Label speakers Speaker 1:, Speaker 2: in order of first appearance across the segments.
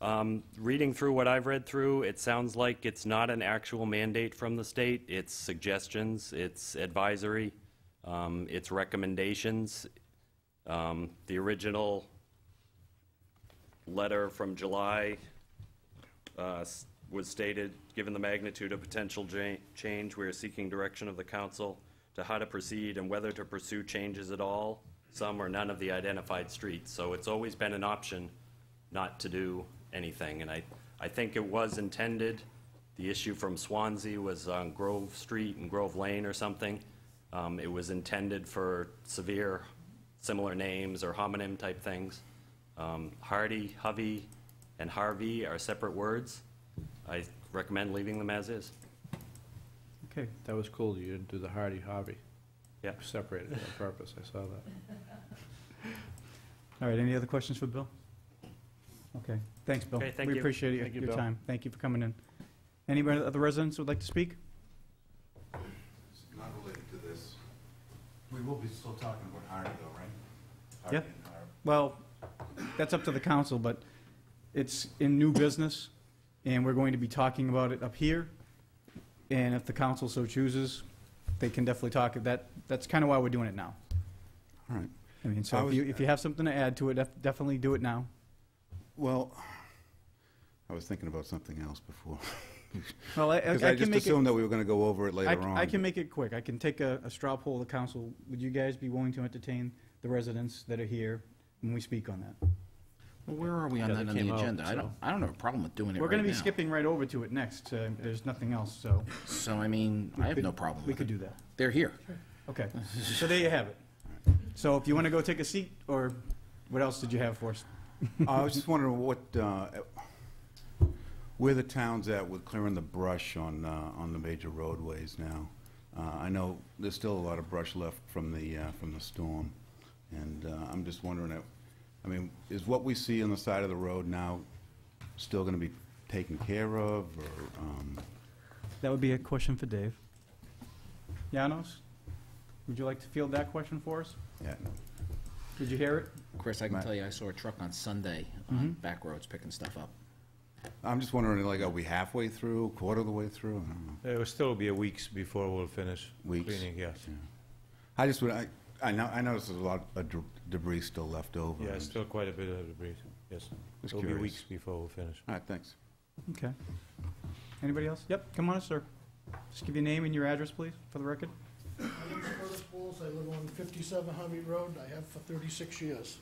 Speaker 1: Um, Reading through what I've read through, it sounds like it's not an actual mandate from the state. It's suggestions, it's advisory, um, it's recommendations. Um, The original letter from July uh, s- was stated, given the magnitude of potential ja- change, we are seeking direction of the council to how to proceed and whether to pursue changes at all, some or none of the identified streets. So it's always been an option not to do anything. And I, I think it was intended, the issue from Swansea was on Grove Street and Grove Lane or something. Um, It was intended for severe, similar names or homonym-type things. Um, Hardy, Hovey, and Harvey are separate words. I recommend leaving them as is.
Speaker 2: Okay, that was cool, you didn't do the Hardy Hobby.
Speaker 1: Yeah.
Speaker 2: Separated on purpose, I saw that. All right, any other questions for Bill?
Speaker 3: Okay, thanks, Bill.
Speaker 1: Okay, thank
Speaker 3: We
Speaker 1: you.
Speaker 3: appreciate your-
Speaker 2: Thank you,
Speaker 3: your
Speaker 2: Bill.
Speaker 3: time. Thank you for coming in. Anybody, other residents who would like to speak?
Speaker 4: Not related to this. We will be still talking about Hardy though, right? Hardy
Speaker 3: Yeah.
Speaker 4: and Har-
Speaker 3: Well, that's up to the council, but it's in new business, and we're going to be talking about it up here. And if the council so chooses, they can definitely talk. That, that's kind of why we're doing it now.
Speaker 4: All right.
Speaker 3: I mean,
Speaker 4: I
Speaker 3: so if
Speaker 4: was-
Speaker 3: you, if you have something to add to it, def- definitely do it now.
Speaker 4: Well, I was thinking about something else before.
Speaker 3: Well, I, I
Speaker 4: Because I
Speaker 3: can
Speaker 4: just
Speaker 3: make it,
Speaker 4: assumed that we were going to go over it
Speaker 3: I,
Speaker 4: later
Speaker 3: c-
Speaker 4: on.
Speaker 3: I can
Speaker 4: but-
Speaker 3: make it quick. I can take a, a straw poll of the council. Would you guys be willing to entertain the residents that are here when we speak on that?
Speaker 5: Well, where are we on
Speaker 2: Yeah,
Speaker 5: that
Speaker 2: they
Speaker 5: on the
Speaker 2: came out,
Speaker 5: agenda? I don't,
Speaker 2: so-
Speaker 5: I don't have a problem with doing it right now.
Speaker 3: We're gonna be skipping right over to it next. uh, There's nothing else, so
Speaker 5: So, I mean, I have no problem
Speaker 3: we
Speaker 5: with
Speaker 3: could
Speaker 5: it.
Speaker 3: do that.
Speaker 5: They're here.
Speaker 3: Okay, so there you have it. So if you want to go take a seat, or what else did you have for us?
Speaker 4: I was just wondering what, uh, where the town's at with clearing the brush on, uh, on the major roadways now. Uh, I know there's still a lot of brush left from the, uh, from the storm, and uh, I'm just wondering, uh, I mean, is what we see on the side of the road now still going to be taken care of, or, um,
Speaker 3: That would be a question for Dave. Janos, would you like to field that question for us?
Speaker 4: yeah, no.
Speaker 3: Did you hear it?
Speaker 5: Chris, I can
Speaker 4: Right.
Speaker 5: tell you, I saw a truck on Sunday on
Speaker 2: Mm-hmm.
Speaker 5: back roads picking stuff up.
Speaker 4: I'm just wondering, like, are we halfway through, quarter of the way through? I don't know.
Speaker 6: It will still be a weeks before we'll finish
Speaker 4: Weeks.
Speaker 6: cleaning, yes.
Speaker 4: I just, would- I, I know, I noticed there's a lot of deb- debris still left over.
Speaker 6: Yeah,
Speaker 4: I'm
Speaker 6: still quite a bit of debris, yes.
Speaker 4: Just
Speaker 6: It'll be
Speaker 4: curious.
Speaker 6: weeks before we finish.
Speaker 4: All right, thanks.
Speaker 3: Okay. Anybody else? Yep, come on up, sir. Just give your name and your address, please, for the record.
Speaker 7: My name is Curtis Bowles. I live on 57 Harvey Road. I have for 36 years.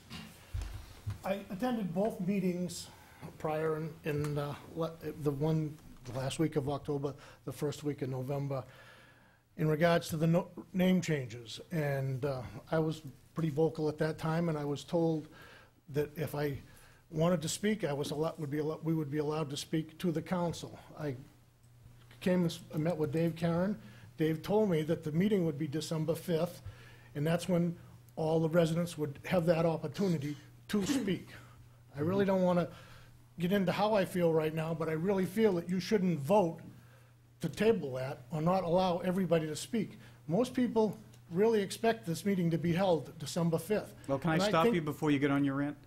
Speaker 7: I attended both meetings prior and- and uh, le- the one, the last week of October, the first week of November, in regards to the no- name changes. And uh, I was pretty vocal at that time, and I was told that if I wanted to speak, I was allowed, would be, allo- we would be allowed to speak to the council. I came and s- I met with Dave Karen. Dave told me that the meeting would be December 5th, and that's when all the residents would have that opportunity to speak. I really don't want to get into how I feel right now, but I really feel that you shouldn't vote to table that or not allow everybody to speak. Most people really expect this meeting to be held December 5th.
Speaker 3: Well, can I
Speaker 7: And
Speaker 3: stop
Speaker 7: think-
Speaker 3: you before you get on your rant?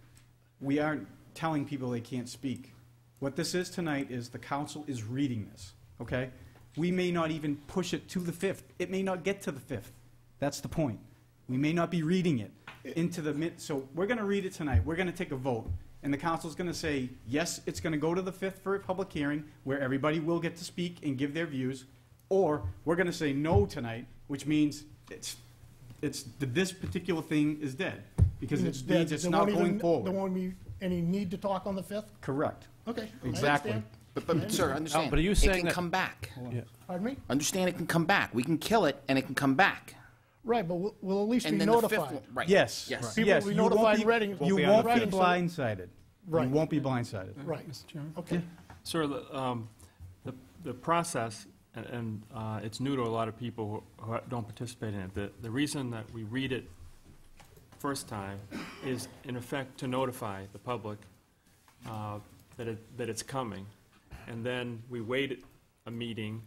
Speaker 3: We aren't telling people they can't speak. What this is tonight is the council is reading this, okay? We may not even push it to the 5th. It may not get to the 5th. That's the point. We may not be reading it into the mid, so we're going to read it tonight. We're going to take a vote. And the council's going to say, yes, it's going to go to the 5th for a public hearing where everybody will get to speak and give their views, or we're going to say no tonight, which means it's, it's, this particular thing is dead, because
Speaker 7: and
Speaker 3: it
Speaker 7: dead.
Speaker 3: means it's
Speaker 7: There
Speaker 3: not
Speaker 7: won't even-
Speaker 3: going
Speaker 7: There
Speaker 3: forward.
Speaker 7: won't be any need to talk on the 5th?
Speaker 3: Correct.
Speaker 7: Okay. I
Speaker 3: Exactly.
Speaker 7: understand.
Speaker 5: But, but, sir, understand,
Speaker 2: Oh, but are you
Speaker 5: it
Speaker 2: saying
Speaker 5: can
Speaker 2: that-
Speaker 5: come back.
Speaker 7: Pardon me?
Speaker 5: Understand, it can come back. We can kill it, and it can come back.
Speaker 7: Right, but we'll, we'll at least be
Speaker 5: And then the fifth
Speaker 7: notified.
Speaker 5: one, right.
Speaker 3: Yes.
Speaker 5: Yes.
Speaker 7: People
Speaker 3: Yes,
Speaker 7: will be
Speaker 3: you won't
Speaker 7: notified
Speaker 3: be-
Speaker 7: ready-
Speaker 3: You
Speaker 7: Won't be on
Speaker 3: won't
Speaker 7: the
Speaker 3: be
Speaker 7: fifth.
Speaker 3: blindsided. You
Speaker 7: Right.
Speaker 3: won't be blindsided.
Speaker 7: Right. Okay.
Speaker 8: Sir, the, um, the, the process, and, and, uh, it's new to a lot of people who who don't participate in it. The, the reason that we read it first time is in effect to notify the public, uh, that it, that it's coming. And then we wait a meeting,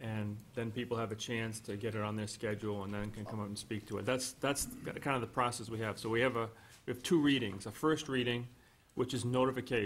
Speaker 8: and then people have a chance to get it on their schedule and then can come up and speak to it. That's, that's kind of the process we have. So we have a, we have two readings, a first reading, which is notification.